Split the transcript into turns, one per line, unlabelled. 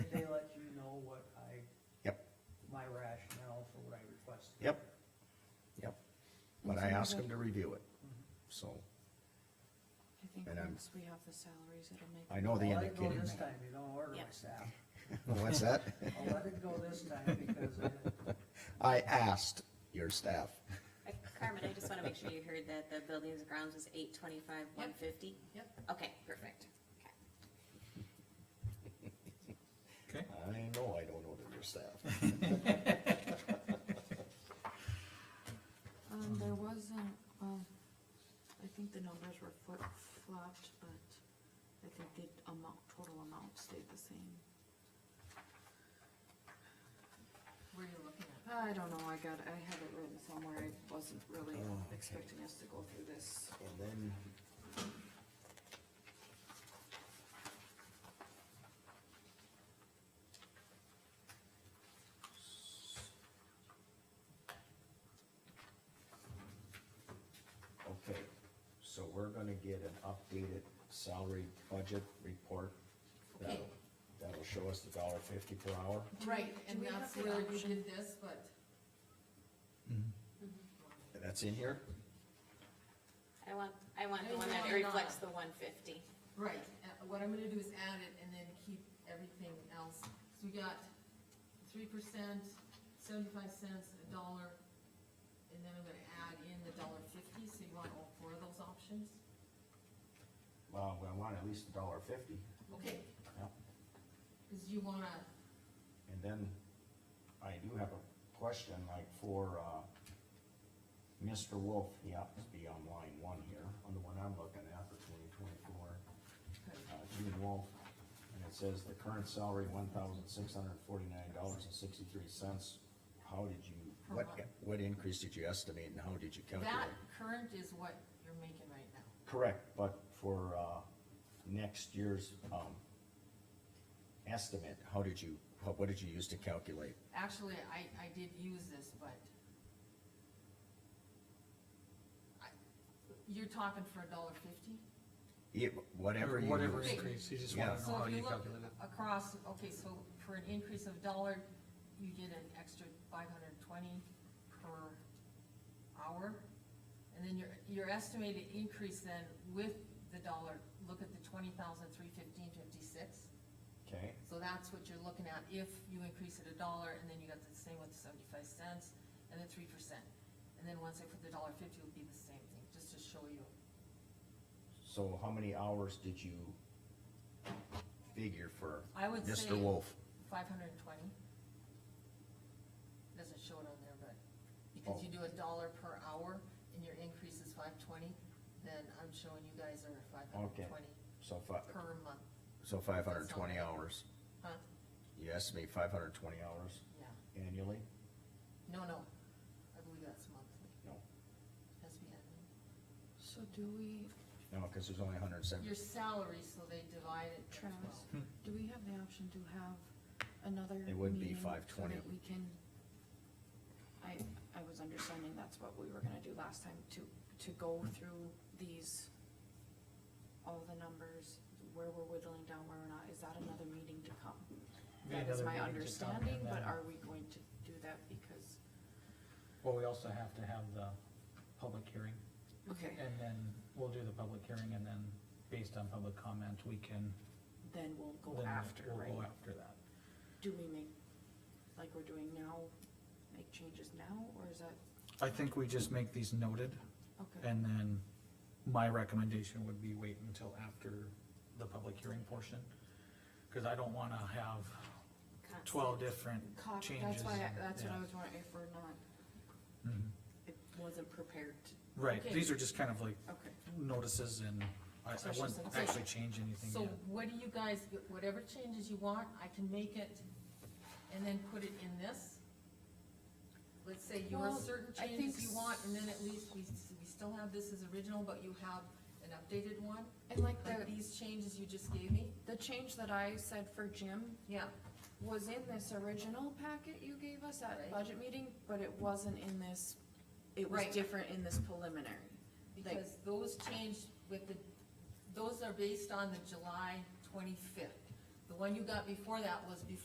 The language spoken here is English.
but I ask him to review it,
Mm-hmm.
so,
I think
And I'm-
once we have the salaries, it'll make.
Oh, I know the
I'll let it go
indicators.
this time, you don't order my staff.
What's that?
I'll let it go this time because I,
I asked your staff,
Uh, Carmen, I just wanna make sure you heard that the buildings and grounds was eight twenty-five, one fifty?
Yep.
Okay, perfect.
Okay,
I know I don't order your staff.
Um, there
Mm-hmm.
wasn't, well, I think the numbers were flip flopped, but I think the amount, total amount stayed the same.
Where are you looking at?
I don't know, I got, I have it written somewhere, I wasn't really
Oh, okay.
expecting us to go through this.
And then. Okay, so we're gonna get an updated salary budget report. That'll, that'll show us the dollar fifty per hour.
Right,
Do
and
we have
that's
the
where we
option?
did this, but
That's in here?
I want, I want the
I
one that
want it
reflects
on.
the one fifty.
Right, uh, what I'm gonna do is add it and then keep everything else, so we got three percent, seventy-five cents, a dollar, and then I'm gonna add in the dollar fifty, so you want all four of those options?
Well, I want at least a dollar fifty.
Okay,
Yep.
cause you wanna,
And then I do have a question like for, uh, Mr. Wolf, he happens to be on line one here, on the one I'm looking at for twenty twenty-four. Uh, Gene Wolf, and it says the current salary, one thousand six hundred forty-nine dollars and sixty-three cents. How did you,
Per
what,
month.
what increase did you estimate and how did you
that
calculate?
current is what you're making right now.
Correct, but for, uh, next year's, um, estimate, how did you, how- what did you use to calculate?
Actually, I, I did use this, but I- you're talking for a dollar fifty?
It, whatever you
Whatever
used.
increase, you just wanna
Yeah.
know
So
how
if
you
you look
calculate it.
across, okay, so for an increase of dollar, you get an extra five hundred and twenty per hour. And then your, your estimated increase then with the dollar, look at the twenty thousand, three fifteen, fifty-six.
Okay,
So that's what you're looking at if you increase it a dollar, and then you got the same with the seventy-five cents and the three percent. And then once I put the dollar fifty, it'll be the same thing, just to show you.
so how many hours did you figure for
I would say
Mr. Wolf?
five hundred and twenty. Doesn't show it on there, but because you do a dollar per hour and your increase is five twenty, then I'm showing you guys are five hundred
Okay.
and twenty
So fi-
per month,
so five hundred and twenty hours,
huh?
you estimate five hundred and twenty hours
Yeah,
annually?
no, no, I believe that's monthly,
No,
has to be annual.
So do we,
no, cause there's only hundred and seventy,
Your salary, so they divide it by
Travis,
twelve.
do we have the option to have another
It would be
meeting so
5:20.
that We can, I, I was understanding that's what we were gonna do last time, to, to go through these, all the numbers, where we're whittling down, where we're not, is that another meeting to come?
Be
That is my
another meeting to come, and
understanding, but
then-
are we going to do that because,
Well, we also have to have the public hearing,
okay,
and then we'll do the public hearing, and then based on public comment, we can.
then we'll go
then
after,
We'll go
right?
after that.
Do we make, like we're doing now, make changes now, or is that,
I think we just make these noted,
okay,
and then my recommendation would be wait until after the public hearing portion. Cause I don't wanna have twelve different
cop, that's
changes.
why, I-
and-
that's what
yeah.
I was wondering, if we're not
Mhm.
It wasn't prepared to,
Right,
Okay.
these are just kind of like
okay.
notices and I, I
Questions
wouldn't
and-
actually change anything
So
yet.
what do you guys, whatever changes you want, I can make it and then put it in this? Let's say your
Well,
certain
I
changes
think
you want, and then at least we, we still have this as original, but you have an updated one?
And like
Like
the,
these changes you just gave me?
the change that I said for Jim
Yeah,
was in this original packet you gave us at
Right.
budget meeting, but it wasn't in this, it was
Right.
different in this preliminary.
because those changed with the, those are based on the July twenty-fifth. The one you got before that was before